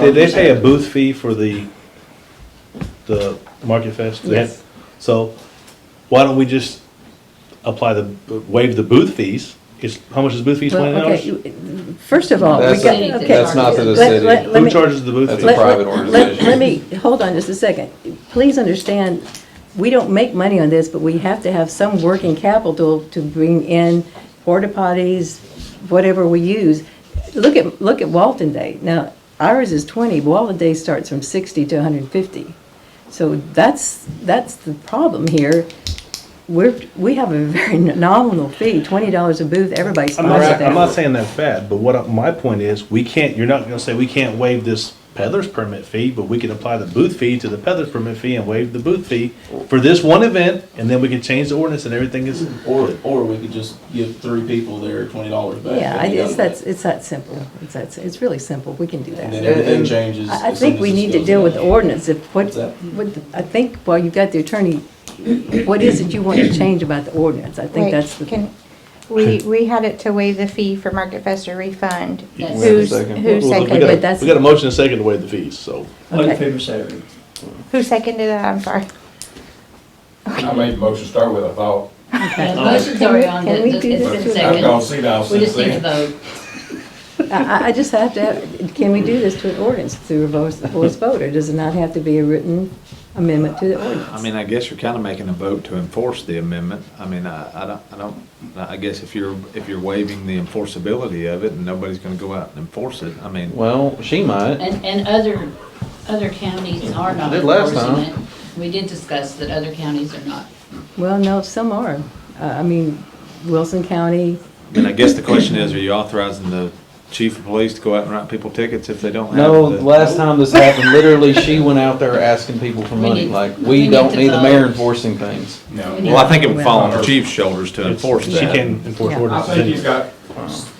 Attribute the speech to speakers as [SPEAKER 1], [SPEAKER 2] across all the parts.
[SPEAKER 1] Did they pay a booth fee for the, the Market Fest?
[SPEAKER 2] Yes.
[SPEAKER 1] So why don't we just apply the, waive the booth fees? Is, how much is booth fees, twenty
[SPEAKER 2] Well, okay,
[SPEAKER 1] dollars?
[SPEAKER 2] you- First of all, we
[SPEAKER 3] That's,
[SPEAKER 2] got,
[SPEAKER 3] a-
[SPEAKER 2] okay.
[SPEAKER 3] that's not for the
[SPEAKER 2] Let- let-
[SPEAKER 3] city.
[SPEAKER 2] let
[SPEAKER 1] Who
[SPEAKER 2] me-
[SPEAKER 1] charges the booth
[SPEAKER 3] That's
[SPEAKER 1] fee?
[SPEAKER 3] a
[SPEAKER 2] Let-
[SPEAKER 3] private
[SPEAKER 2] let-
[SPEAKER 3] organization.
[SPEAKER 2] Let me, hold on just a second. Please understand, we don't make money on this, but we have to have some working capital to bring in porta potties, whatever we use. Look at, look at Walton Day. Now, ours is 20, Walton Day starts from 60 to 150. So that's, that's the problem here. We're, we have a very nominal fee, $20 a booth, everybody
[SPEAKER 1] I'm not,
[SPEAKER 2] sponsors that.
[SPEAKER 1] I'm not saying that's bad, but what, I- my point is, we can't, you're not gonna say we can't waive this peddler's permit fee, but we can apply the booth fee to the peddler's permit fee and waive the booth fee for this one event, and then we can change the ordinance and everything is,
[SPEAKER 4] Or, or we could just give three people their twenty dollars back.
[SPEAKER 2] Yeah,
[SPEAKER 4] that
[SPEAKER 2] I-
[SPEAKER 4] they
[SPEAKER 2] it's
[SPEAKER 4] got
[SPEAKER 2] that, it's that simple. It's that, si- it's really simple. We can do
[SPEAKER 4] And then
[SPEAKER 2] that.
[SPEAKER 4] everything changes.
[SPEAKER 2] I, I
[SPEAKER 4] as soon
[SPEAKER 2] think
[SPEAKER 4] as
[SPEAKER 2] we
[SPEAKER 4] this
[SPEAKER 2] need to
[SPEAKER 4] goes
[SPEAKER 2] deal
[SPEAKER 4] in.
[SPEAKER 2] with the ordinance. If what,
[SPEAKER 4] What's that?
[SPEAKER 2] what, I think, well, you've got the attorney, what is it you want to change about the ordinance? I think
[SPEAKER 5] Wait,
[SPEAKER 2] that's the,
[SPEAKER 5] can- We, we had it to waive the fee for Market Fest or refund.
[SPEAKER 3] Yes.
[SPEAKER 5] Who's,
[SPEAKER 3] We have a
[SPEAKER 5] who seconded,
[SPEAKER 3] second.
[SPEAKER 1] Well, we
[SPEAKER 2] but
[SPEAKER 1] got,
[SPEAKER 2] that's-
[SPEAKER 1] a- we got a motion and a second to waive the fees, so.
[SPEAKER 6] All in
[SPEAKER 2] Okay.
[SPEAKER 6] favor, say aye.
[SPEAKER 5] who seconded that? I'm sorry.
[SPEAKER 7] I made the motion to start with, I thought,
[SPEAKER 3] Yeah, the motion's already on,
[SPEAKER 2] Can we
[SPEAKER 3] it-
[SPEAKER 2] do
[SPEAKER 3] it's
[SPEAKER 2] this
[SPEAKER 3] been
[SPEAKER 2] to-
[SPEAKER 7] I've
[SPEAKER 3] seconded.
[SPEAKER 7] gone see now
[SPEAKER 3] We
[SPEAKER 7] since
[SPEAKER 3] just need to
[SPEAKER 7] then.
[SPEAKER 3] vote.
[SPEAKER 2] I, I- I just have to, have- can we do this to an ordinance through a voice, voice vote? Or does it not have to be a written amendment to the
[SPEAKER 8] I
[SPEAKER 2] ordinance?
[SPEAKER 8] mean, I guess you're kind of making a vote to enforce the amendment. I mean, I, I don't, I don't, I guess if you're, if you're waiving the enforceability of it and nobody's gonna go out and enforce it, I mean,
[SPEAKER 9] Well, she might.
[SPEAKER 3] And, and other, other counties are not
[SPEAKER 9] Did last
[SPEAKER 3] enforcing it.
[SPEAKER 9] time.
[SPEAKER 3] We did discuss that other counties are not.
[SPEAKER 2] Well, no, some are. Uh, I mean, Wilson County,
[SPEAKER 8] and I guess the question is, are you authorizing the chief of police to go out and write people tickets if they don't have?
[SPEAKER 9] No,
[SPEAKER 8] the-
[SPEAKER 9] last time this happened, literally, she went out there asking people for
[SPEAKER 3] We
[SPEAKER 9] money,
[SPEAKER 3] need-
[SPEAKER 9] like,
[SPEAKER 3] we
[SPEAKER 9] we
[SPEAKER 3] need
[SPEAKER 9] don't
[SPEAKER 3] to
[SPEAKER 9] need the mayor
[SPEAKER 3] vote.
[SPEAKER 9] enforcing things.
[SPEAKER 3] need-
[SPEAKER 7] No.
[SPEAKER 8] Well, I think it would fall on the chief's shoulders to enforce
[SPEAKER 1] She
[SPEAKER 8] that.
[SPEAKER 1] can enforce
[SPEAKER 2] Yeah.
[SPEAKER 7] I
[SPEAKER 1] ordinance.
[SPEAKER 7] think he's got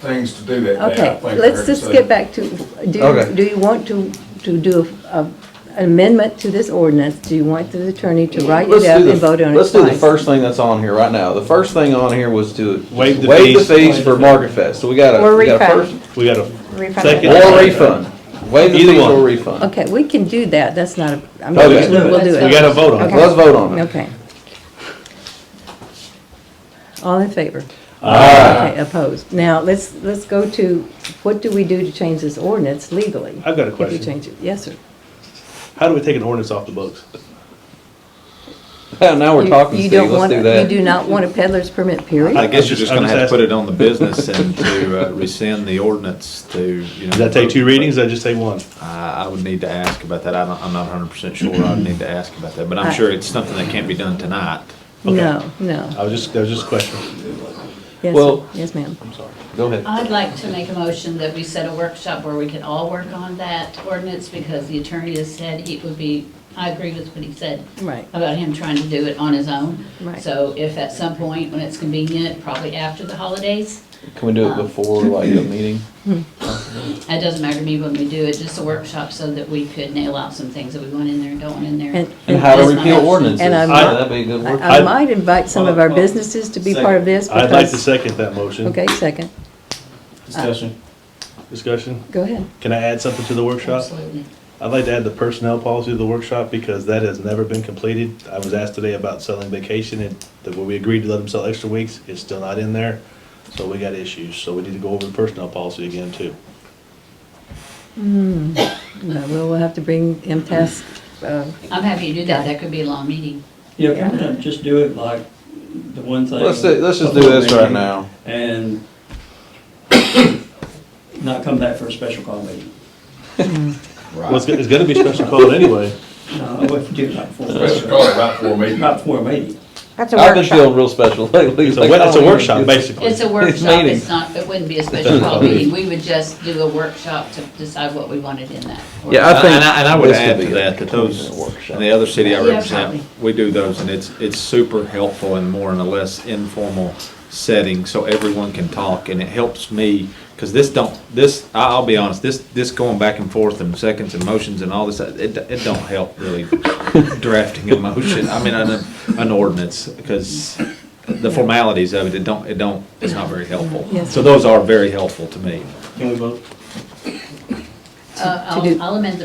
[SPEAKER 7] things to do that day. I
[SPEAKER 2] Okay,
[SPEAKER 7] think
[SPEAKER 2] let's
[SPEAKER 7] there's
[SPEAKER 2] just
[SPEAKER 7] a-
[SPEAKER 2] get back to, do, you-
[SPEAKER 9] Okay.
[SPEAKER 2] do you want to, to do a- a- an amendment to this ordinance? Do you want the attorney to write
[SPEAKER 9] Let's
[SPEAKER 2] it up
[SPEAKER 9] do the-
[SPEAKER 2] and vote on it
[SPEAKER 9] Let's do the
[SPEAKER 2] twice?
[SPEAKER 9] first thing that's on here right now. The first thing on here was to
[SPEAKER 1] Waive the
[SPEAKER 9] waive the
[SPEAKER 1] fees.
[SPEAKER 9] fees for Market Fest, so we got
[SPEAKER 5] Or
[SPEAKER 9] a, we got a
[SPEAKER 5] refund.
[SPEAKER 9] first.
[SPEAKER 1] We got a,
[SPEAKER 5] Refund.
[SPEAKER 1] Second.
[SPEAKER 5] it.
[SPEAKER 9] Or refund. Waive the
[SPEAKER 1] Either
[SPEAKER 9] fees
[SPEAKER 1] one.
[SPEAKER 9] or refund.
[SPEAKER 2] Okay, we can do that, that's not a, I mean,
[SPEAKER 9] Okay.
[SPEAKER 2] we'll we'll do
[SPEAKER 3] Let's
[SPEAKER 1] we
[SPEAKER 2] it.
[SPEAKER 1] got a vote on it.
[SPEAKER 2] Okay.
[SPEAKER 9] Let's vote on it.
[SPEAKER 2] Okay. All in favor? Okay, opposed. Now, let's, let's go to, what do we do to change this ordinance legally?
[SPEAKER 1] I've got a
[SPEAKER 2] If we
[SPEAKER 1] question.
[SPEAKER 2] change it, yes, sir.
[SPEAKER 1] How do we take an ordinance off the books?
[SPEAKER 9] Now we're
[SPEAKER 2] You-
[SPEAKER 9] talking,
[SPEAKER 2] you
[SPEAKER 9] Steve,
[SPEAKER 2] don't
[SPEAKER 9] let's
[SPEAKER 2] want-
[SPEAKER 9] do
[SPEAKER 2] You do
[SPEAKER 9] that.
[SPEAKER 2] not want a peddler's permit, period?
[SPEAKER 8] I guess you're just gonna have to
[SPEAKER 1] I'm just- I'm just
[SPEAKER 8] put it on the business and to uh, rescind the ordinance to, you know.
[SPEAKER 1] Does that take two
[SPEAKER 8] vote.
[SPEAKER 1] readings, does that just take one?
[SPEAKER 8] I, I would need to ask about that. I don't, I'm not hundred percent sure. I'd need to ask about that, but I'm sure it's something that can't be done tonight.
[SPEAKER 1] okay.
[SPEAKER 2] No, no.
[SPEAKER 1] I was just, that was just a question.
[SPEAKER 2] Yes, sir.
[SPEAKER 9] Well-
[SPEAKER 2] yes, ma'am.
[SPEAKER 9] Go ahead.
[SPEAKER 3] I'd like to make a motion that we set a workshop where we can all work on that ordinance because the attorney has said he would be, I agree with what he said
[SPEAKER 2] Right.
[SPEAKER 3] about him trying to do it on his own.
[SPEAKER 2] Right.
[SPEAKER 3] So if at some point when it's convenient, probably after the holidays,
[SPEAKER 9] Can we do
[SPEAKER 2] Uh,
[SPEAKER 9] it before, like, the meeting?
[SPEAKER 3] It doesn't matter to me when we do it, just a workshop so that we could nail out some things that we want in there and don't want in there.
[SPEAKER 2] And-
[SPEAKER 9] And how to
[SPEAKER 3] That's my
[SPEAKER 9] repeal
[SPEAKER 3] motion.
[SPEAKER 9] ordinances.
[SPEAKER 2] And I'm-
[SPEAKER 9] That'd be a good workshop.
[SPEAKER 2] I I might invite some of our businesses to be part of this
[SPEAKER 1] I'd like to
[SPEAKER 2] because,
[SPEAKER 1] second that motion.
[SPEAKER 2] okay, second, uh,
[SPEAKER 4] Discussion.
[SPEAKER 1] Discussion?
[SPEAKER 2] go ahead.
[SPEAKER 1] Can I add something to the workshop?
[SPEAKER 3] Absolutely.
[SPEAKER 1] I'd like to add the personnel policy to the workshop because that has never been completed. I was asked today about selling vacation and that when we agreed to let them sell extra weeks, it's still not in there. So we got issues, so we need to go over the personnel policy again too.
[SPEAKER 2] No, We'll we'll have to bring MTS, uh,
[SPEAKER 3] I'm happy to do that, that could be a long meeting.
[SPEAKER 6] Yeah, kind of just do it like the one thing.
[SPEAKER 9] Let's, do- let's just do this right now.
[SPEAKER 6] And not come back for a special call meeting.
[SPEAKER 1] Well, it's, go- it's gonna be special call anyway.
[SPEAKER 6] No, I wouldn't do it right before,
[SPEAKER 7] Special call right for me.
[SPEAKER 6] right before a meeting.
[SPEAKER 5] That's a
[SPEAKER 9] I've been
[SPEAKER 5] workshop.
[SPEAKER 9] feeling real special lately.
[SPEAKER 1] It's a,
[SPEAKER 9] Like,
[SPEAKER 1] wo-
[SPEAKER 9] I
[SPEAKER 1] it's a
[SPEAKER 9] don't even-
[SPEAKER 1] workshop, basically.
[SPEAKER 3] It's a workshop,
[SPEAKER 9] meeting.
[SPEAKER 3] it's not, it wouldn't be a special call meeting, we would just do a workshop to decide what we wanted in that.
[SPEAKER 9] Yeah, I
[SPEAKER 8] And
[SPEAKER 9] think.
[SPEAKER 8] and I, and I would
[SPEAKER 9] this could
[SPEAKER 8] add
[SPEAKER 9] be
[SPEAKER 8] to
[SPEAKER 9] a
[SPEAKER 8] that, that those,
[SPEAKER 9] 20-minute workshop.
[SPEAKER 8] and the other city I
[SPEAKER 3] Yeah,
[SPEAKER 8] represent, we do those, and it's, it's super helpful and more in a less informal setting, so everyone can talk, and it helps me, because this don't, this, I- I'll be honest, this, this going back and forth and seconds and motions and all this, it, it don't help really drafting a motion, I mean, an, an ordinance, because the formalities of it, it don't, it don't, it's not very helpful.
[SPEAKER 2] Yes.
[SPEAKER 8] So those are very helpful to me.
[SPEAKER 4] Can we vote?
[SPEAKER 3] Uh,
[SPEAKER 2] to do-
[SPEAKER 3] I'll I'll amend the